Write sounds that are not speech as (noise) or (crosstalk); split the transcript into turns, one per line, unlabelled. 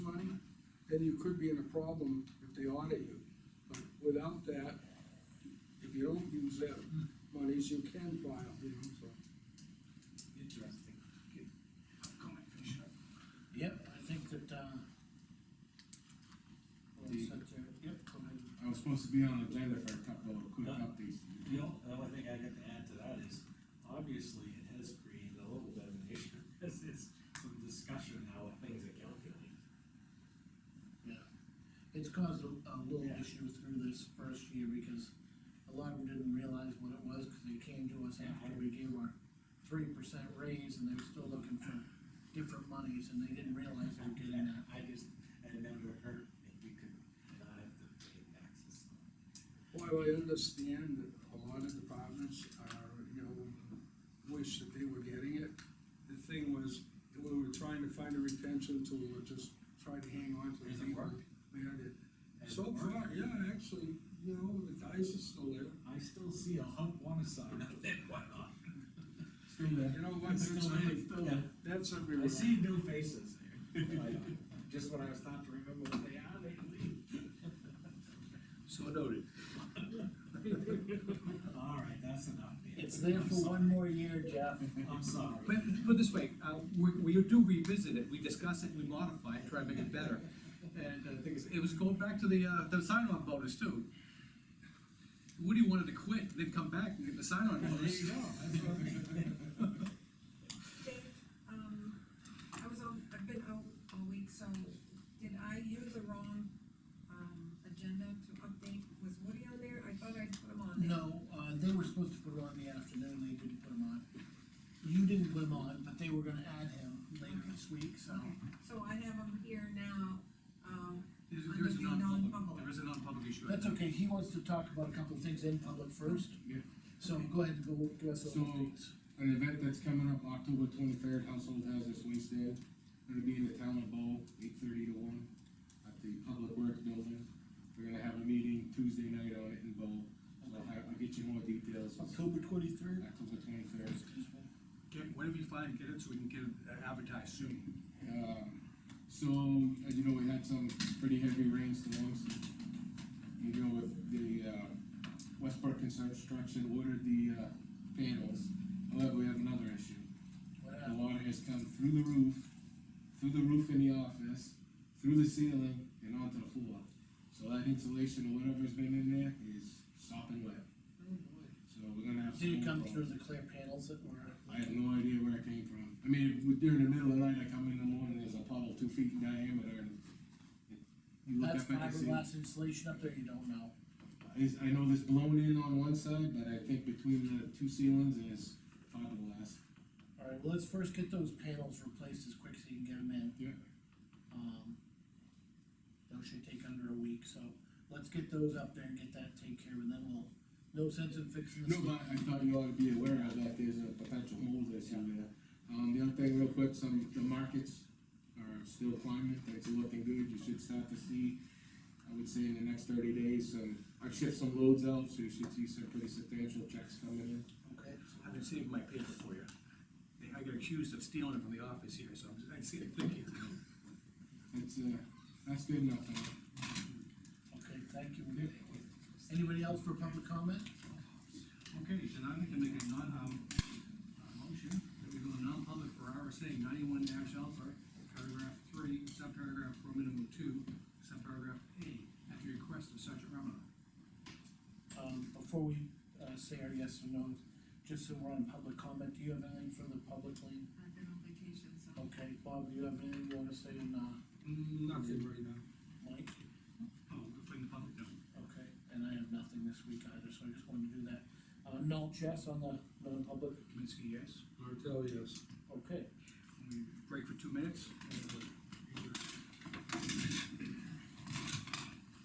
then you could be in a problem if they audit you. But without that, if you don't use that monies, you can file, you know, so.
Interesting. Upcoming for sure.
Yep, I think that, uh. we'll
The-
set there. Yep, go ahead.
I was supposed to be on agenda for a couple of quick
Yeah.
updates.
The only, the only thing I got to add to that is, obviously, it has created a little bit of an issue, (laughs) because it's some discussion how things are calculated.
Yeah. It's caused a, a little
Yeah.
issue through this first year because a lot of them didn't realize what it was, cause they came to us
Yeah.
after we gave our three percent raise and they were still looking for different monies and they didn't realize they were getting that.
I just, I never heard that we could not have to pay taxes.
While I understand that a lot of departments are, you know, wish that they were getting it, the thing was, we were trying to find a retention tool, or just try to hang on to the
Has it
people.
worked?
Yeah, it-
Has it
So
worked?
far, yeah, actually, you know, the dice is still there.
I still see a hump one side, not (laughs) that one on.
Still there.
You know what, that's, every- that's everywhere.
I see new faces
(laughs)
here. Just when I was starting to remember what they are, they leave.
So noted.
All right, that's enough. Dan.
It's there
I'm
for one more year, Jeff.
sorry. I'm sorry.
But put it this way, uh, we, we do revisit it, we discuss it, we modify it, try to make it better. And uh, the thing is, it was going back to the, uh, the sign-on bonus too. Woody wanted to quit, then come back and get the sign-on
There
bonus.
you go, that's what I mean.
Dave, um, I was out, I've been out all week, so did I use the wrong, um, agenda to update? Was Woody on there? I thought I put him on there.
No, uh, they were supposed to put it on the afternoon, they didn't put him on. You didn't put him on, but they were gonna add him later this week, so.
Okay, so I have him here now, um,
There's, there is a
Under
non-public,
the non-public.
there is a non-public issue.
That's okay, he wants to talk about a couple of things in public first.
Yeah.
So go ahead and go, give us all
So-
the updates.
An event that's coming up October twenty-third, Household Hazardous Waste Day, gonna be in the town of Bow, eight thirty to one, at the Public Works Building. We're gonna have a meeting Tuesday night on it in Bow, so I'll, have- I'll get you more details.
October twenty-third?
October twenty-third.
Get, whatever you find, get it so we can get it advertised soon.
Um, So, as you know, we had some pretty heavy rainstorms. You know, with the, uh, Westbrook Construction ordered the, uh, panels. However, we have another issue. The water has come through the roof, through the roof in the office, through the ceiling, and onto the floor. So that insulation, whatever's been in there, is sopping wet. So we're gonna have.
Oh, Did it come
some problems.
through the clear panels that were?
I have no idea where it came from. I mean, during the middle of the night, I come in the morning, there's a puddle two feet in diameter and. you look
That's
up at the sea.
fiberglass insulation up there, you don't know.
Is, I know there's blown in on one side, but I think between the two ceilings is fiberglass.
All right, well, let's first get those panels replaced as quick as you can get them in.
Yeah.
Um, those should take under a week, so let's get those up there and get that taken care of, and then we'll, no sense in fixing this.
No, but I thought you ought to be aware of that there's a potential mold issue there. Um, the other thing real quick, some, the markets are still climbing, things are looking good, you should start to see, I would say in the next thirty days, some, I've shipped some loads out, so you should see some pretty substantial checks coming in.
Okay,
I've been saving my paper for you. I got accused of stealing it from the office here, so I'm just, I see it thinking.
That's, uh, that's good enough, huh?
okay, thank you. Anybody else for public comment?
Okay, then I'd like to make a non, um, uh, motion that we go to non-public for RSA ninety-one dash alpha, paragraph three, subparagraph four, minimum two, subparagraph A, at the request of Sergeant Romano.
Um, before we, uh, say our yes or no's, just so we're on public comment, do you have anything for the public, Lean?
I've been on vacation, so.
Okay, Bob, do you have anything you wanna say, and, uh,
Nothing Mm, right now.
Mike?
Oh, we're putting the public down.
Okay, and I have nothing this week either, so I just wanted to do that. Uh, null chess on the, non public,
Kaminsky, yes.
Martel, yes.
okay.
We Break for two minutes.
And